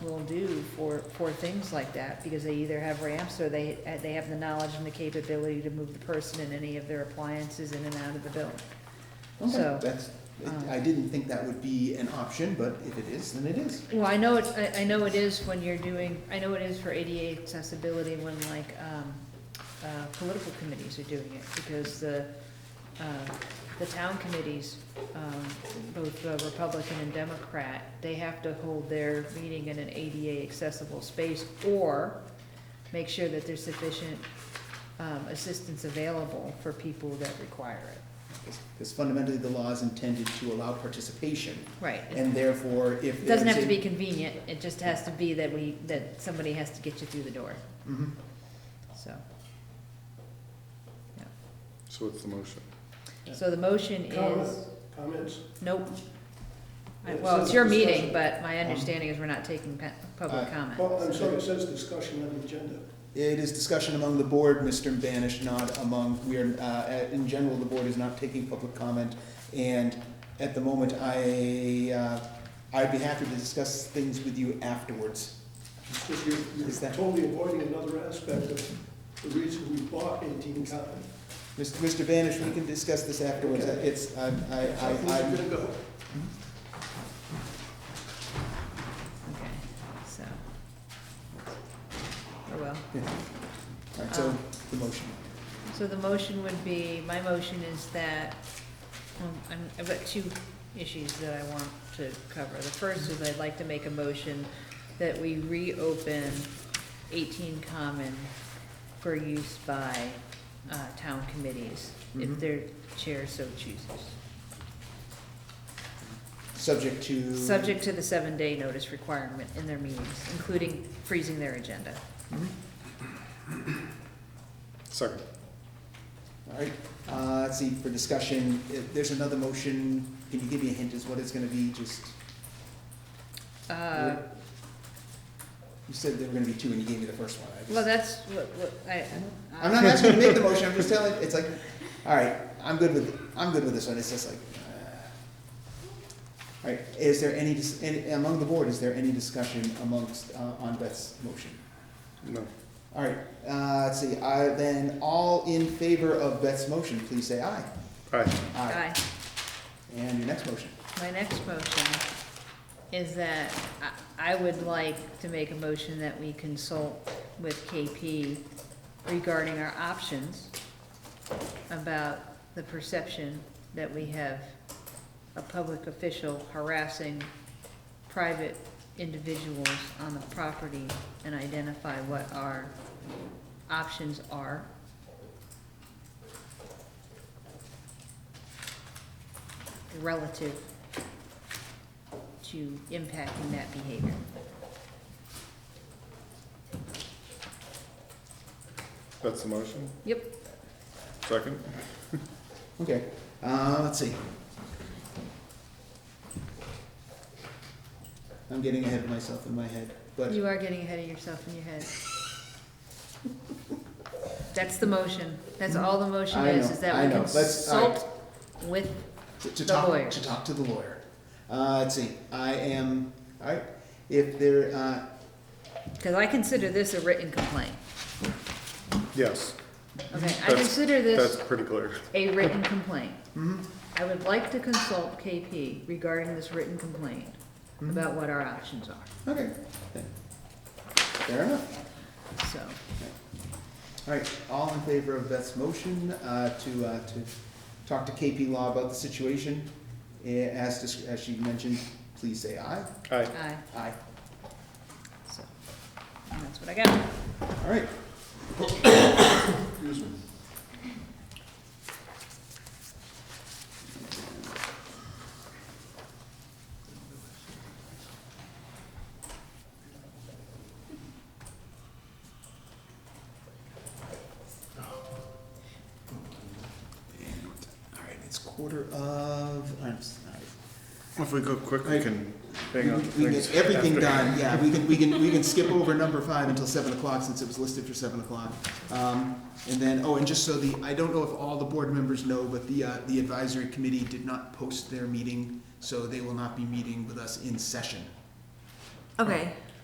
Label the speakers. Speaker 1: for, for things like that, because they either have ramps or they, uh, they have the knowledge and the capability to move the person and any of their appliances in and out of the building.
Speaker 2: Okay,
Speaker 1: So,
Speaker 2: That's,
Speaker 1: um,
Speaker 2: I didn't think that would be an option, but if it is, then it is.
Speaker 1: Well, I know it, I, I know it is when you're doing, I know it is for ADA accessibility when like, um, uh, political committees are doing it, because the, uh, the town committees, um, both uh, Republican and Democrat, they have to hold their meeting in an ADA accessible space, or make sure that there's sufficient, um, assistance available for people that require it.
Speaker 2: Because fundamentally, the law is intended to allow participation,
Speaker 1: Right.
Speaker 2: and therefore, if.
Speaker 1: It doesn't
Speaker 2: there's
Speaker 1: have to
Speaker 2: a-
Speaker 1: be convenient, it just has to be that we, that somebody has to get you through the door,
Speaker 2: Mhm.
Speaker 1: so.
Speaker 3: So what's the motion?
Speaker 1: So the motion
Speaker 4: Comments?
Speaker 1: is,
Speaker 4: Comments?
Speaker 1: nope. I-
Speaker 4: It
Speaker 1: Well,
Speaker 4: says
Speaker 1: it's your
Speaker 4: discussion.
Speaker 1: meeting, but my understanding is we're not taking pa- public
Speaker 2: Uh,
Speaker 4: Oh,
Speaker 1: comment.
Speaker 4: I'm sorry, it says discussion on the agenda.
Speaker 2: It is discussion among the board, Mr. Banish, not among, we are, uh, in general, the board is not taking public comment. And at the moment, I, uh, I'd be happy to discuss things with you afterwards.
Speaker 4: It's just you're,
Speaker 2: Is
Speaker 4: you're
Speaker 2: that-
Speaker 4: totally avoiding another aspect of the reason we bought eighteen Common.
Speaker 2: Mr. Mr. Banish, we can discuss this afterwards.
Speaker 4: Okay.
Speaker 2: It's, I, I,
Speaker 4: So
Speaker 2: I,
Speaker 4: who's
Speaker 2: I'm-
Speaker 4: gonna go?
Speaker 1: Okay, so. Or well,
Speaker 2: all right, so
Speaker 1: Um,
Speaker 2: the motion.
Speaker 1: so the motion would be, my motion is that, um, I'm- I've got two issues that I want to cover. The first is I'd like to make a motion that we reopen eighteen Common for use by, uh, town committees, if
Speaker 2: Mhm.
Speaker 1: their chair so chooses.
Speaker 2: Subject to.
Speaker 1: Subject to the seven-day notice requirement in their meetings, including freezing their agenda.
Speaker 2: Mhm.
Speaker 3: Second.
Speaker 2: All right, uh, let's see, for discussion, eh, there's another motion. Can you give me a hint as what it's gonna be, just?
Speaker 1: Uh,
Speaker 2: You said there were gonna be two, and you gave me the first one. I just-
Speaker 1: well, that's what, what, I.
Speaker 2: I'm not asking you to make the motion, I'm just telling, it's like, all right, I'm good with, I'm good with this one, it's just like, uh. All right, is there any, dis- any, among the board, is there any discussion amongst, uh, on Beth's motion?
Speaker 3: No.
Speaker 2: All right, uh, let's see, I, then, all in favor of Beth's motion, please say aye.
Speaker 3: Aye.
Speaker 1: Aye.
Speaker 2: And your next motion,
Speaker 1: My next motion is that I, I would like to make a motion that we consult with KP regarding our options about the perception that we have a public official harassing private individuals on the property and identify what our options are. relative to impacting that behavior.
Speaker 3: That's the motion?
Speaker 1: Yep.
Speaker 3: Second?
Speaker 2: okay, uh, let's see. I'm getting ahead of myself in my head, but.
Speaker 1: You are getting ahead of yourself in your head. That's the motion. That's all the motion
Speaker 2: I
Speaker 1: is,
Speaker 2: know,
Speaker 1: is
Speaker 2: I
Speaker 1: that we
Speaker 2: know. Let's- all right.
Speaker 1: consult with,
Speaker 2: To- To
Speaker 1: The lawyer.
Speaker 2: talk, to talk to the lawyer. Uh, let's see, I am, all right, if there, uh,
Speaker 1: because I consider this a written complaint.
Speaker 3: Yes.
Speaker 2: Mm-hmm.
Speaker 1: Okay, I
Speaker 3: That's-
Speaker 1: consider
Speaker 3: That's
Speaker 1: this
Speaker 3: pretty clear.
Speaker 1: a written complaint.
Speaker 2: mhm,
Speaker 1: I would like to consult KP regarding this written complaint
Speaker 2: Mhm.
Speaker 1: about what our options are,
Speaker 2: okay, then. Fair enough.
Speaker 1: so.
Speaker 2: All right, all in favor of Beth's motion, uh, to, uh, to talk to KP Law about the situation, eh, as, dis- as she mentioned, please say aye.
Speaker 3: Aye.
Speaker 1: Aye,
Speaker 2: Aye.
Speaker 1: so, and that's what I got.
Speaker 2: All right,
Speaker 4: Excuse me.
Speaker 2: all right, it's quarter of, I'm sorry.
Speaker 3: If we go quick, we can
Speaker 2: We
Speaker 3: hang on. to
Speaker 2: can- we can
Speaker 3: things
Speaker 2: get everything
Speaker 3: after.
Speaker 2: done, yeah, we can, we can, we can skip over number five until seven o'clock, since it was listed for seven o'clock. Um, and then, oh, and just so the, I don't know if all the board members know, but the, uh, the advisory committee did not post their meeting, so they will not be meeting with us in session.
Speaker 1: Okay,